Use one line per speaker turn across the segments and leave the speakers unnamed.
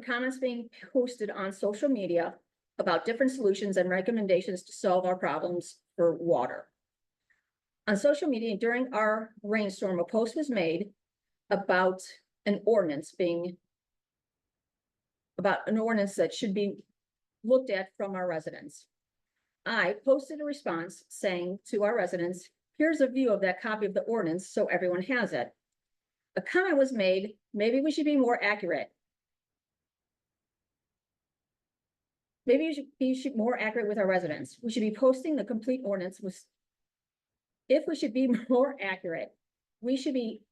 comments being posted on social media about different solutions and recommendations to solve our problems for water. On social media during our rainstorm, a post was made about an ordinance being about an ordinance that should be looked at from our residents. I posted a response saying to our residents, here's a view of that copy of the ordinance, so everyone has it. A comment was made, maybe we should be more accurate. Maybe you should be should more accurate with our residents. We should be posting the complete ordinance with. If we should be more accurate, we should be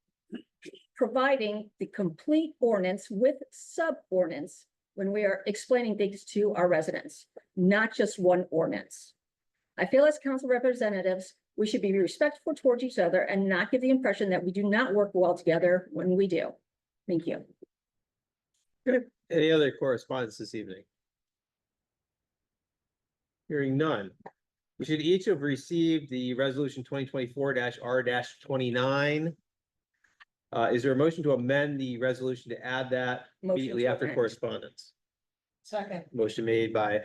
providing the complete ordinance with sub-ordinance when we are explaining things to our residents, not just one ordinance. I feel as council representatives, we should be respectful towards each other and not give the impression that we do not work well together when we do. Thank you.
Any other correspondence this evening? Hearing none. We should each have received the resolution twenty twenty-four R twenty-nine. Uh, is there a motion to amend the resolution to add that
Motion
immediately
to
after
amend.
correspondence?
Second.
Motion made by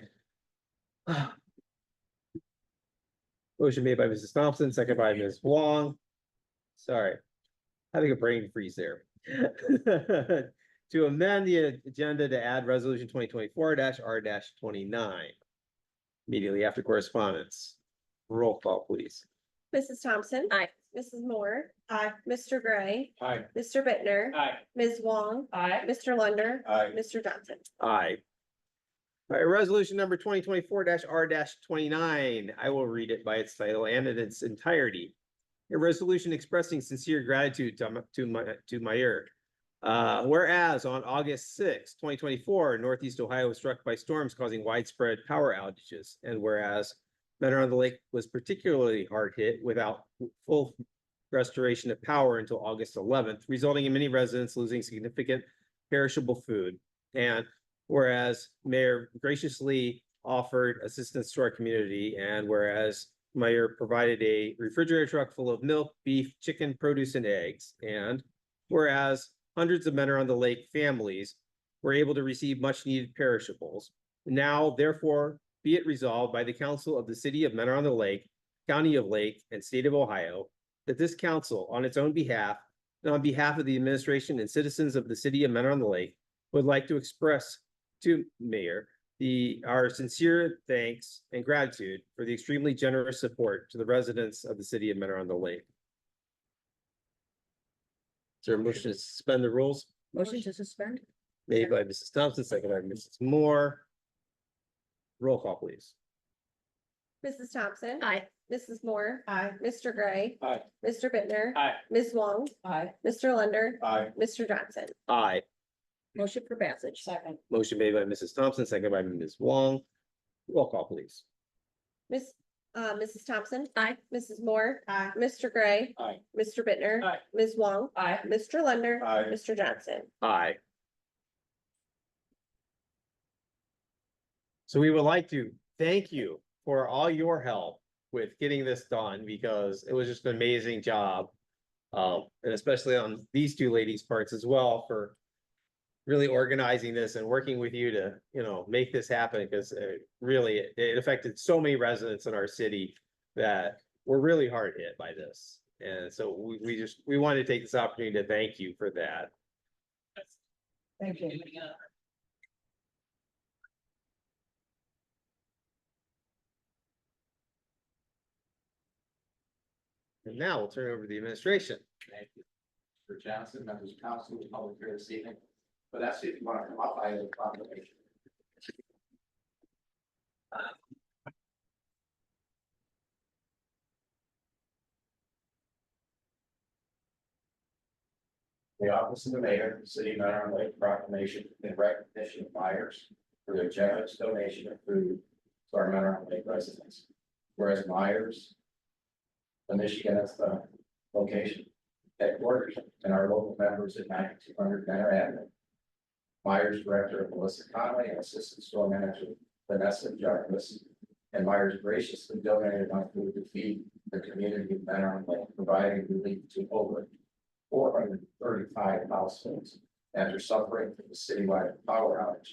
motion made by Mrs. Thompson, second by Ms. Wong. Sorry, having a brain freeze there. To amend the agenda to add resolution twenty twenty-four R twenty-nine. Immediately after correspondence. Roll call, please.
Mrs. Thompson.
Aye.
Mrs. Moore.
Aye.
Mr. Gray.
Aye.
Mr. Bittner,
Aye.
Ms. Wong.
Aye.
Mr. Lunder.
Aye.
Mr. Johnson.
Aye. All right, resolution number twenty twenty-four R twenty-nine. I will read it by its title and in its entirety. A resolution expressing sincere gratitude to, M- to my, to Meyer. Uh, whereas on August sixth, twenty twenty-four, Northeast Ohio was struck by storms causing widespread power outages. And whereas Mentor on the Lake was particularly hard hit without full restoration of power until August eleventh, resulting in many residents losing significant perishable food. And whereas mayor graciously offered assistance to our community and whereas mayor provided a refrigerator truck full of milk, beef, chicken, produce and eggs. And whereas hundreds of men are on the lake families were able to receive much needed perishables. Now therefore be it resolved by the council of the city of Mentor on the Lake, county of Lake and state of Ohio, that this council on its own behalf and on behalf of the administration and citizens of the city of Mentor on the Lake would like to express to Mayor the, our sincere thanks and gratitude for the extremely generous support to the residents of the city of Mentor on the Lake. Is there a motion to suspend the rules
Motion to suspend?
made by Mrs. Thompson, second by Mrs. Moore? Roll call, please.
Mrs. Thompson.
Aye.
Mrs. Moore.
Aye.
Mr. Gray.
Aye.
Mr. Bittner,
Aye.
Ms. Wong.
Aye.
Mr. Lunder.
Aye.
Mr. Johnson.
Aye.
Motion for passage?
Second.
Motion made by Mrs. Thompson, second by Ms. Wong. Roll call, please.
Miss, uh, Mrs. Thompson.
Aye.
Mrs. Moore.
Aye.
Mr. Gray.
Aye.
Mr. Bittner,
Aye.
Ms. Wong.
Aye.
Mr. Lunder.
Aye.
Mr. Johnson.
Aye. So we would like to thank you for all your help with getting this done because it was just an amazing job. Um, and especially on these two ladies' parts as well for really organizing this and working with you to, you know, make this happen because it really, it affected so many residents in our city that were really hard hit by this. And so we, we just, we wanted to take this opportunity to thank you for that.
Thank you.
And now we'll turn it over to the administration.
Thank you. For Johnson, members of council, the public here this evening, but that's if you want to come up, I have a proclamation. The office of the mayor, of the city of Mount Lake proclamation in recognition of Myers for their generous donation of food to our Mount Lake residents. Whereas Myers. The Michigan is the location headquarters and our local members at ninety-two hundred Manor Avenue. Myers Director Melissa Conley and Assistant Store Manager Vanessa Jarvis. And Myers graciously donated my food to feed the community of Manor Lake, providing relief to over four hundred thirty-five households after suffering from the citywide power outage.